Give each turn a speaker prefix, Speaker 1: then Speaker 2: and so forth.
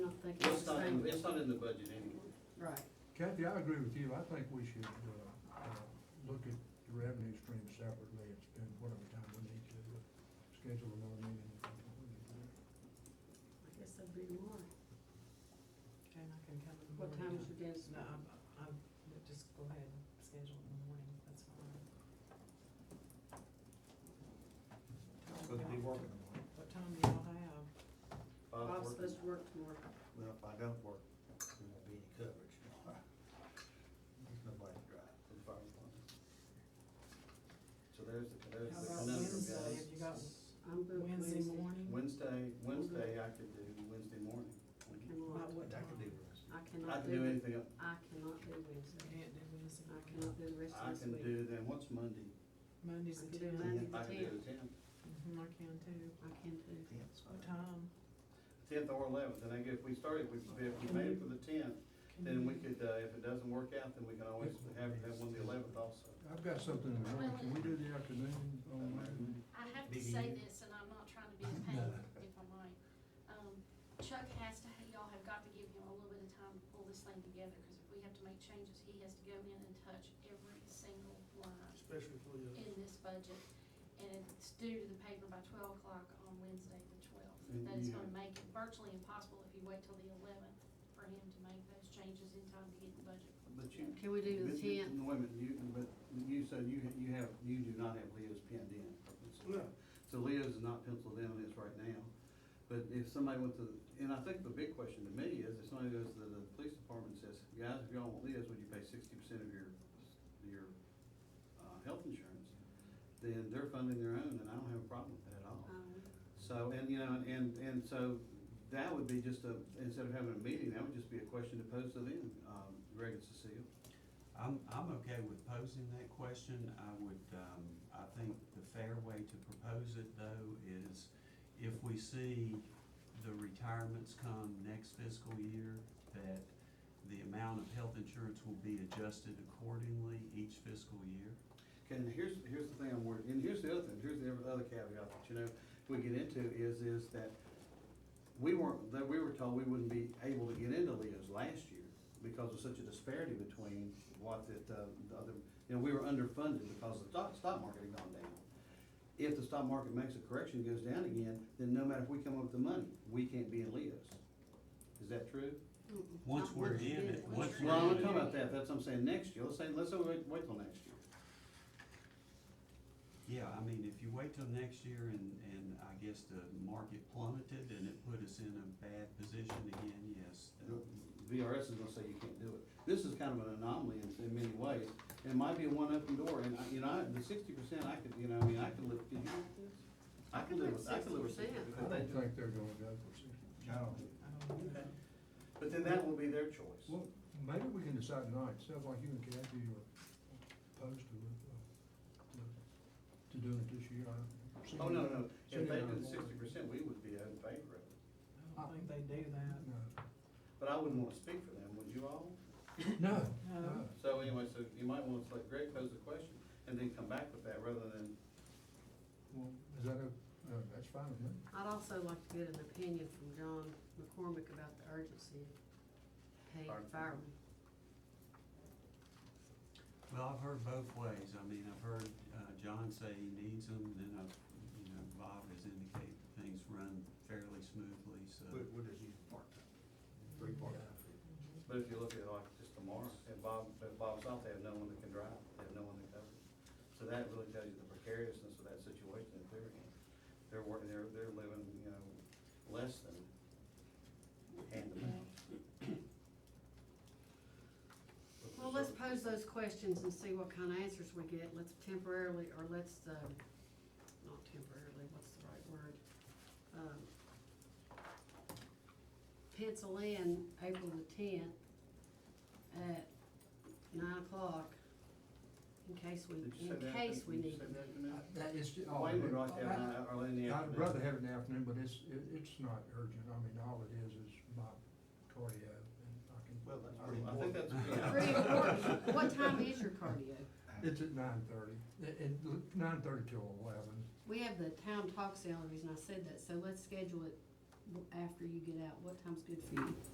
Speaker 1: in the budget anyway.
Speaker 2: Right.
Speaker 3: Kathy, I agree with you. I think we should, uh, uh, look at the revenue stream separately and spend whatever time we need to, uh, schedule another meeting. if that's what we need to do.
Speaker 2: I guess that'd be tomorrow.
Speaker 4: Okay, and I can come in the
Speaker 2: What
Speaker 4: morning.
Speaker 2: time is your dentist?
Speaker 4: No, I'm, I'm, just go ahead and schedule it in the morning, that's fine.
Speaker 5: So they'll be working on it.
Speaker 4: What time do y'all have?
Speaker 2: Bob's
Speaker 1: Bob's working.
Speaker 2: supposed to work tomorrow.
Speaker 5: Well, if I don't work, there won't be any coverage. There's nobody to drive.
Speaker 1: for the fire department. So there's, there's
Speaker 4: How
Speaker 1: the
Speaker 4: about
Speaker 1: conundrum,
Speaker 4: Wednesday, have you
Speaker 1: guys.
Speaker 4: got
Speaker 2: I'm booked
Speaker 4: Wednesday morning?
Speaker 1: Wednesday, Wednesday I could do, Wednesday morning.
Speaker 2: I
Speaker 4: About
Speaker 2: cannot,
Speaker 4: what
Speaker 5: That
Speaker 4: time?
Speaker 5: could be worse.
Speaker 2: I
Speaker 1: I
Speaker 2: cannot
Speaker 1: can do
Speaker 2: do,
Speaker 1: anything, else.
Speaker 2: I cannot do Wednesday.
Speaker 4: Can't do Wednesday.
Speaker 2: I cannot do the rest
Speaker 1: I
Speaker 2: of this
Speaker 1: can
Speaker 2: week.
Speaker 1: do then, what's Monday?
Speaker 4: Monday's
Speaker 2: I
Speaker 4: the
Speaker 2: can do Monday.
Speaker 4: tenth.
Speaker 2: the
Speaker 1: I can do
Speaker 2: 10th.
Speaker 1: the tenth.
Speaker 4: Mm-hmm, I can too.
Speaker 2: I can do.
Speaker 5: Yeah, it's fine.
Speaker 4: What time?
Speaker 1: Tenth or eleventh, and I guess if we started, we- if we made it for the tenth,
Speaker 4: Can
Speaker 1: then we
Speaker 4: you-
Speaker 1: could, uh, if it doesn't work out, then we can always have, have one the eleventh also.
Speaker 3: I've got something in the morning. Can we do the afternoon on Monday?
Speaker 6: I have to
Speaker 5: Maybe
Speaker 6: say
Speaker 5: you-
Speaker 6: this, and I'm not trying to be a pain, if I might. Um, Chuck has to, y'all have got to give him a little bit of time to pull this thing together, because if we have to make changes, he has to go in and touch every single line
Speaker 7: especially for the,
Speaker 6: in this budget. And it's due to the paper by twelve o'clock on Wednesday, the twelfth.
Speaker 1: And
Speaker 6: That is
Speaker 1: you-
Speaker 6: gonna make it virtually impossible if you wait till the eleventh for him to make those changes in time to get the budget.
Speaker 1: But you,
Speaker 2: Can we do the
Speaker 1: This- this-
Speaker 2: tenth?
Speaker 1: Wait a minute, you, but you said you, ha- you have, you do not have Leo's pinned in.
Speaker 7: No.
Speaker 1: So Leo's is not penciled in on this right now, but if somebody went to, and I think the big question to me is, if somebody goes to the police department and says, guys, if y'all want Leo's, would you pay sixty percent of your, your, uh, health insurance? Then they're funding their own, and I don't have a problem with that at all.
Speaker 2: Um,
Speaker 1: So, and, you know, and, and so that would be just a, instead of having a meeting, that would just be a question to pose to them, um, Greg and Cecile.
Speaker 8: I'm, I'm okay with posing that question. I would, um, I think the fair way to propose it though is if we see the retirements come next fiscal year, that the amount of health insurance will be adjusted accordingly each fiscal year.
Speaker 1: Okay, and here's, here's the thing I'm worried, and here's the other thing, here's the other caveat that, you know, we get into is, is that we weren't, that we were told we wouldn't be able to get into Leo's last year because of such a disparity between what that, uh, the other, you know, we were underfunded because the stock, stock market had gone down. If the stock market makes a correction, goes down again, then no matter if we come up with the money, we can't be in Leo's. Is that true?
Speaker 2: mm-mm,
Speaker 8: Once
Speaker 2: not
Speaker 8: we're
Speaker 2: once you
Speaker 8: in
Speaker 2: do
Speaker 8: it, once
Speaker 2: you
Speaker 8: we're
Speaker 1: Well,
Speaker 2: do
Speaker 1: I'm not
Speaker 2: it.
Speaker 1: talking about that, that's what I'm saying, next year, let's say, let's say wait, wait till next year.
Speaker 8: Yeah, I mean, if you wait till next year and, and I guess the market plummeted and it put us in a bad position again, yes. uh, that-
Speaker 1: VRS is gonna say you can't do it. This is kind of an anomaly in, in many ways, and it might be a one open door, and I, you know, I- the sixty percent, I could, you know, I mean, I could live, could you live with this? I could live with, I could live with
Speaker 2: 60%.
Speaker 3: I don't
Speaker 1: 60%.
Speaker 3: think they're gonna go for sixty
Speaker 5: I
Speaker 3: percent.
Speaker 5: don't know.
Speaker 4: I don't know.
Speaker 1: But then that will be their choice.
Speaker 3: Well, maybe we can decide tonight. Sounds like you and Kathy are opposed to it, uh, to doing it this year. I-
Speaker 1: Oh, no, no, if they did sixty percent, we would be in favor of it,
Speaker 4: I don't think they do that.
Speaker 1: but I wouldn't wanna speak for them, would you all?
Speaker 3: No,
Speaker 4: No.
Speaker 3: no.
Speaker 1: So anyway, so you might want to let Greg pose the question, and then come back with that, rather than,
Speaker 3: Well, is that a, uh, that's fine with me.
Speaker 2: I'd also like to get an opinion from John McCormick about the urgency of paying
Speaker 1: Pardon?
Speaker 2: firemen.
Speaker 8: Well, I've heard both ways. I mean, I've heard uh, John say he needs them, then I've, you know, Bob has indicated things run fairly smoothly, so.
Speaker 5: What, what is you part-time? Three part-time.
Speaker 1: but if you look at like just tomorrow, if Bob, if Bob's off, they have no one that can drive, they have no one that covers. So that really tells you the precariousness of that situation that they're in. They're working, they're, they're living, you know, less than hand to mouth.
Speaker 2: Well, let's pose those questions and see what kind of answers we get. Let's temporarily, or let's, uh, not temporarily, what's the right word? Um, Pencil in April the tenth at nine o'clock in case we,
Speaker 1: Did you say
Speaker 2: in
Speaker 1: that?
Speaker 2: case we
Speaker 1: Did you
Speaker 2: need.
Speaker 1: say that in there?
Speaker 3: That is. ju- oh,
Speaker 1: Wayne would uh, like to have it in the-
Speaker 3: I-
Speaker 1: early in the
Speaker 3: I'd
Speaker 1: afternoon.
Speaker 3: rather have it in the afternoon, but it's, it, it's not urgent. I mean, all it is is my cardio and I can.
Speaker 5: Well, that's
Speaker 3: I-
Speaker 5: pretty
Speaker 1: I think that's.
Speaker 2: Pretty important. What time is your cardio?
Speaker 3: It's at nine thirty, it, nine thirty till eleven.
Speaker 2: We have the town talk salaries and I said that, so let's schedule it w- after you get out. What time's good for you?